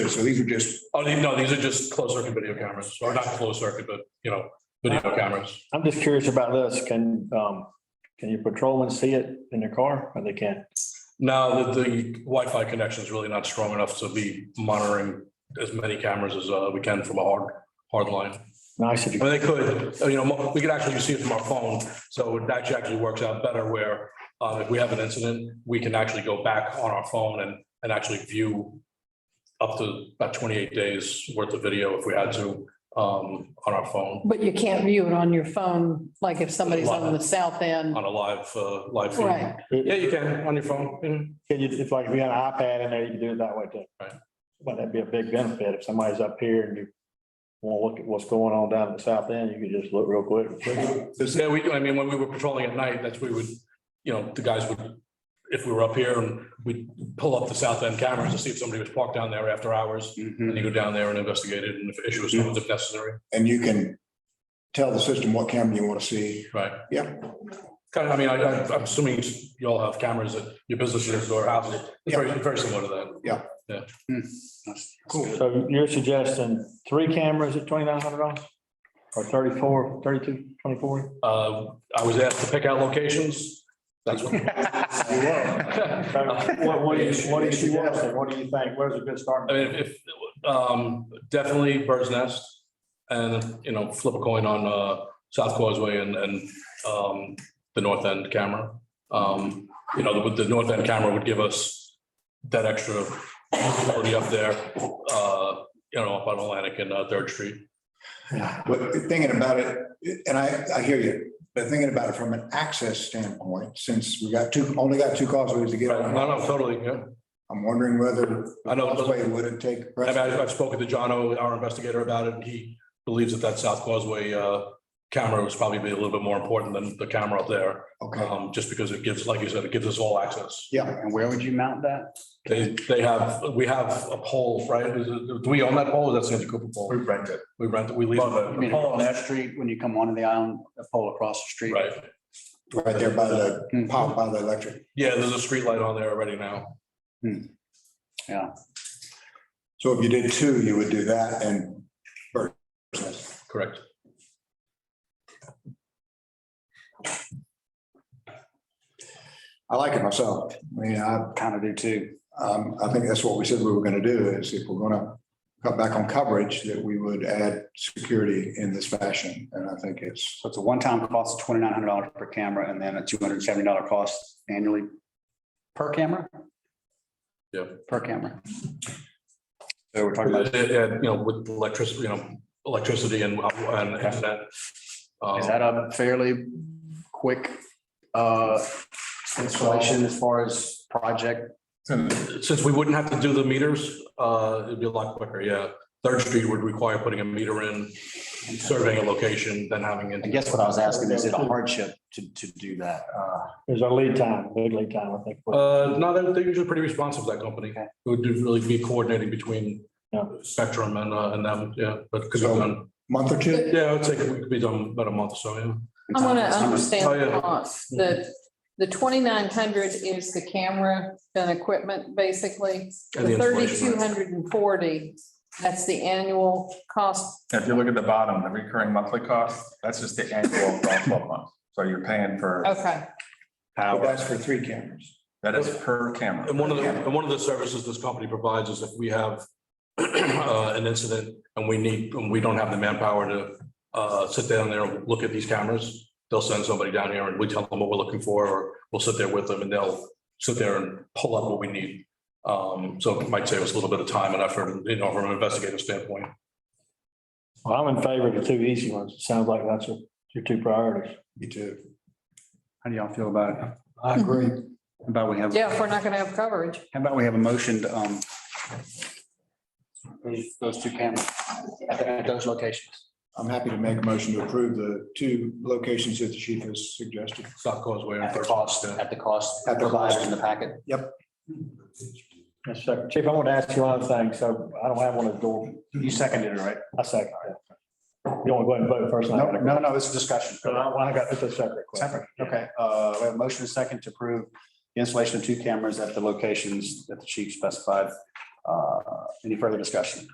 so these are just, Oh, the- no, these are just closed circuit video cameras, or not closed circuit, but, you know, video cameras. I'm just curious about this. Can, um, can your patrolmen see it in their car or they can't? Now, the, the Wi-Fi connection is really not strong enough to be monitoring as many cameras as, uh, we can from a hard, hard line. Nice if I you, mean, they could, you know, mo- we could actually see it from our phone, so it actually actually works out better where uh, if we have an incident, we can actually go back on our phone and, and actually view up to about twenty-eight days worth of video if we had to, um, on our phone, But you can't view it on your phone, like if somebody's on the south end. on a live, uh, live feed. Right, Yeah, you can, on your phone. mhm. can you, if like, if you had an iPad in there, you can do it that way too. Right. But that'd be a big benefit. If somebody's up here and you want to look at what's going on down at the south end, you could just look real quick. this, Yeah, we, I mean, when we were patrolling at night, that's we would, you know, the guys would, if we were up here and we'd pull up the south end cameras to see if somebody was parked down there after hours. And and you go down there and investigate it and if issue is found if necessary, you can tell the system what camera you want to see. right? Yeah. Kind of, I mean, I, I- I'm assuming you all have cameras at your businesses or houses. It's very, very similar to that. Cool. So you're suggesting three cameras at twenty-nine hundred dollars? Or 34, 32, 24? Uh, I was asked to pick out locations. That's what. What, what do you, what do you suggest? What do you think? Where's a good I starting? mean, if, um, definitely Bird's Nest and, you know, flip a coin on, uh, South Causeway and, and, um, the North End camera. Um, you know, the, the North End camera would give us that extra ability up there, uh, you know, up on Atlantic and uh, Third Street. But thinking about it, and I, I hear you, but thinking about it from an access standpoint, since we got two, only got two causeways to get Right, on, no, no, totally, yeah. I'm wondering whether I know, it doesn't- causeway wouldn't take. I mean, precedent. I've I've spoken to John O, our investigator, about it, and he believes that that South Causeway, uh, camera was probably be a little bit more important than the camera up there. Okay, Um, just because it gives, like you said, it gives us all access. yeah, And where would you mount that? They, they have, we have a pole, right? Is it- Do we own that pole? or That's Santa Cooper pole. rent it. We rent it, we lease I mean, it. on that street, when you come onto the island, a pole across the street. Right. right there by the, Mm-hmm. Hmm. power by the electric. Yeah, there's a street light on there already now. So if you did two, you would do that and. Bird Nest. Correct. I like it myself. I mean, I, Kind of do too. Um, I think that's what we said we were gonna do, is if we're gonna cut back on coverage, that we would add security in this fashion, and I think it's, So it's a one-time cost of twenty-nine hundred dollars per camera and then a two hundred and seventy dollar cost annually per camera? Yeah. Per camera. So we're talking And, about, and, you know, with electricity, you know, electricity and, and internet. is Um, that a fairly quick uh installation as far as project? Since we wouldn't have to do the meters, uh, it'd be a lot quicker, yeah. Third Street would require putting a meter in, surveying a location, then having I it. guess what I was asking, is it a hardship to to do that? Uh, There's a lead time, big lead time, I think. Uh, no, they're, they're usually pretty responsive, that company. It Okay. would really be coordinating between Yeah. Spectrum and, uh, and them, yeah, but, because we've So- done, month or two? yeah, I'd say we could be done about a month or so, yeah. I want to Oh, understand yeah. the cost. The, the twenty-nine hundred is the camera and equipment, basically. And the The installation, thirty-two right. hundred and forty, that's the annual cost. If you look at the bottom, the recurring monthly cost, that's just the annual for twelve months. So you're paying for Okay, But power. That's for three cameras. That is per camera. And one of the, and one of the services this company provides is if we have uh, an incident and we need, and we don't have the manpower to uh, sit down there and look at these cameras, they'll send somebody down here and we tell them what we're looking for, or we'll sit there with them and they'll sit there and pull up what we need. Um, So it might save us a little bit of time and effort, you know, from an investigative standpoint. Well, I'm in favor of the two easy ones. It sounds like that's your- your two priorities. Me too. How do y'all feel about it? I agree. How About we have. yeah, if we're not going to have coverage. How about we have a motion to, um, approve those two cameras at at those locations? I'm happy to make a motion to approve the two locations that the chief has suggested. South Causeway. and At the Thurston. cost, at the cost. At the cost. provided In the packet. Yes, sir. Chief, I want to ask you one other thing. So I don't have one of the door. You seconded it, right? I second. that. You want to go ahead and vote first? No, no, no, it's a discussion. So I I got, it's a separate question. Separate, okay. Uh, we have a motion and second to approve the installation of two cameras at the locations that the chief specified. Uh, Any further discussion?